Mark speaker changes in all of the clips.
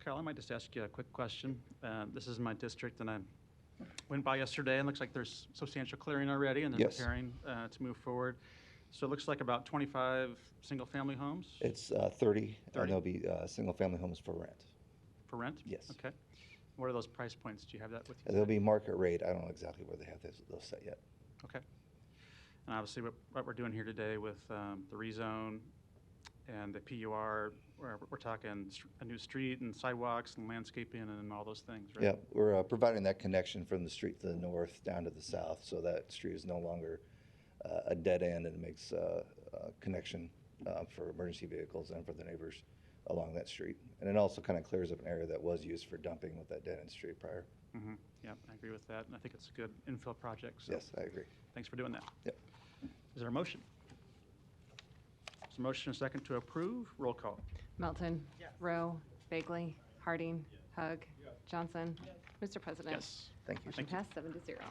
Speaker 1: Carol, I might just ask you a quick question. Uh, This is my district, and I went by yesterday, and looks like there's substantial clearing already, and they're
Speaker 2: Yes.
Speaker 1: preparing uh, to move forward. So it looks like about 25 single-family homes
Speaker 2: It's uh, 30, and
Speaker 1: 30.
Speaker 2: there'll be uh, single-family homes for rent.
Speaker 1: for rent?
Speaker 2: yes.
Speaker 1: Okay. What are those price points? Do you have that with you?
Speaker 2: And They'll be market rate. I don't know exactly where they have those those set yet.
Speaker 1: Okay. And obviously, what, what we're doing here today with um, the rezone and the PUR, we're, we're talking str- a new street and sidewalks and landscaping and all those things, right?
Speaker 2: Yeah, we're uh, providing that connection from the street to the north down to the south, so that street is no longer uh, a dead end and makes uh, a connection uh, for emergency vehicles and for the neighbors along that street. And it also kind of clears up an area that was used for dumping with that dead end street prior.
Speaker 1: Mhm. Yeah, I agree with that, and I think it's a good infill project, so
Speaker 2: Yes, I agree.
Speaker 1: thanks for doing that.
Speaker 2: Yep.
Speaker 1: Is there a motion? Is there a motion and second to approve? Roll call.
Speaker 3: Melton. Rowe. Bagley. Harding. Hug. Johnson. Mr. President.
Speaker 1: Yes.
Speaker 2: Thank you.
Speaker 3: Motion
Speaker 1: Thank you.
Speaker 3: passed, seven to zero.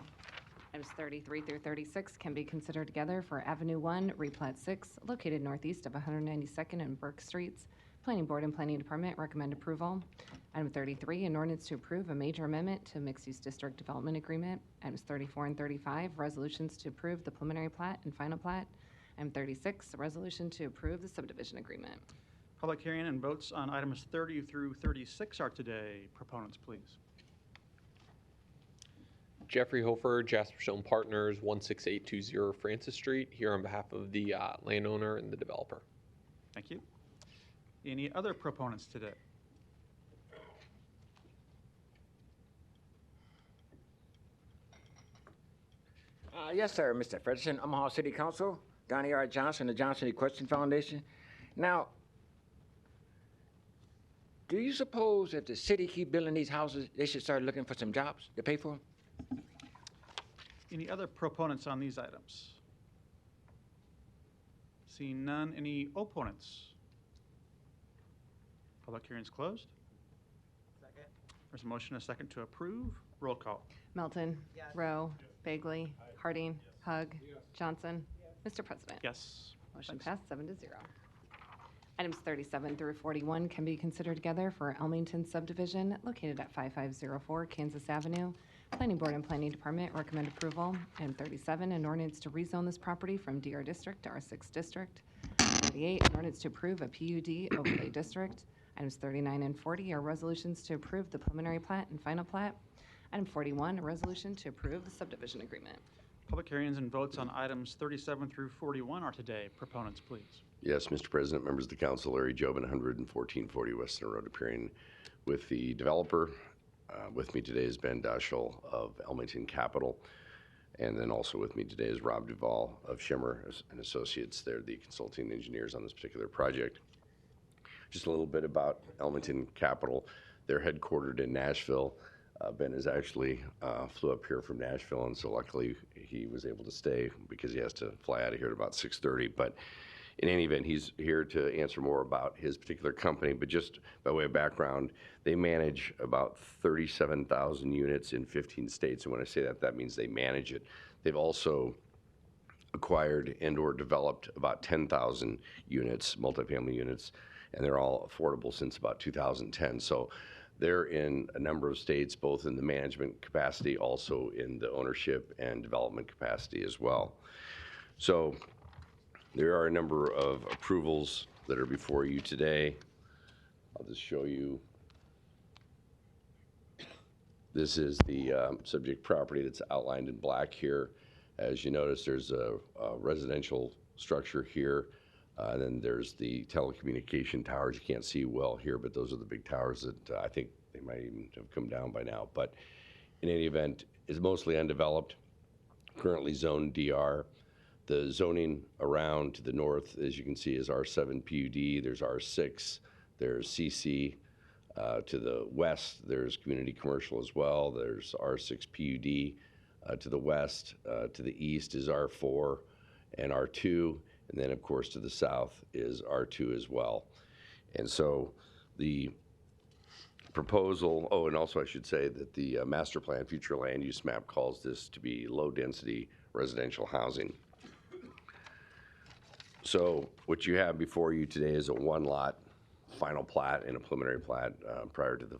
Speaker 3: Items 33 through 36 can be considered together for Avenue 1, replat 6, located northeast of 192nd and Burke Streets. Planning Board and Planning Department recommend approval. Item 33, an ordinance to approve a major amendment to mixed-use district development agreement. Items 34 and 35, resolutions to approve the preliminary plat and final plat. Item 36, a resolution to approve the subdivision agreement.
Speaker 1: Public hearing and votes on items 30 through 36 are today. Proponents, please.
Speaker 4: Jeffrey Hofer, Jasper Stone Partners, 16820 Francis Street, here on behalf of the uh, landowner and the developer.
Speaker 1: Thank you. Any other proponents today?
Speaker 5: Uh, Yes, sir, Mr. Frederickson, Omaha City Council, Donnie R. Johnson, the Johnson Equestrian Foundation. Now, do you suppose if the city keep building these houses, they should start looking for some jobs to pay for? 'em?
Speaker 1: Any other proponents on these items? Seeing none, any opponents? Public hearing's closed. There's a motion, and a second to approve. Roll call.
Speaker 3: Melton. Rowe. Bagley. Harding. Hug. Johnson. Mr. President.
Speaker 1: Yes.
Speaker 3: Motion
Speaker 1: Thanks.
Speaker 3: passed, seven to zero. Items 37 through 41 can be considered together for Elmington subdivision located at 5504 Kansas Avenue. Planning Board and Planning Department recommend approval. Item 37, an ordinance to rezone this property from DR District to R6 District. 38, an ordinance to approve a PUD overlay district. Items 39 and 40 are resolutions to approve the preliminary plat and final plat. Item 41, a resolution to approve the subdivision agreement.
Speaker 1: Public hearings and votes on items 37 through 41 are today. Proponents, please.
Speaker 6: Yes, Mr. President, members of the council, Larry Jobin, 11440 Western Road, appearing with the developer. Uh, With me today is Ben Dushel of Elmington Capital, and then also with me today is Rob Duval of Shimmer and Associates. They're the consulting engineers on this particular project. Just a little bit about Elmington Capital. They're headquartered in Nashville. Uh, ben is actually uh, flew up here from Nashville, and so luckily he was able to stay because he has to fly out of here at about 6:30. But in any event, he's here to answer more about his particular company. But just by way of background, they manage about 37,000 units in 15 states, and when I say that, that means they manage it. They've also acquired and or developed about 10,000 units, multifamily units, and they're all affordable since about 2010. So they're in a number of states, both in the management capacity, also in the ownership and development capacity as well. So there are a number of approvals that are before you today. I'll just show you. This is the um, subject property that's outlined in black here. As you notice, there's a a residential structure here. uh, And then there's the telecommunication towers. You can't see well here, but those are the big towers that uh, I think they might even have come down by now. But in any event, it's mostly undeveloped, currently zoned DR. The zoning around to the north, as you can see, is R7 PUD, there's R6, there's CC. Uh, To the west, there's community commercial as well, there's R6 PUD. Uh, To the west, uh, to the east is R4 and R2, and then, of course, to the south is R2 as well. And so the proposal, oh, and also I should say that the uh, master plan, future land use map calls this to be low-density residential housing. So what you have before you today is a one-lot final plat and a preliminary plat uh, prior to the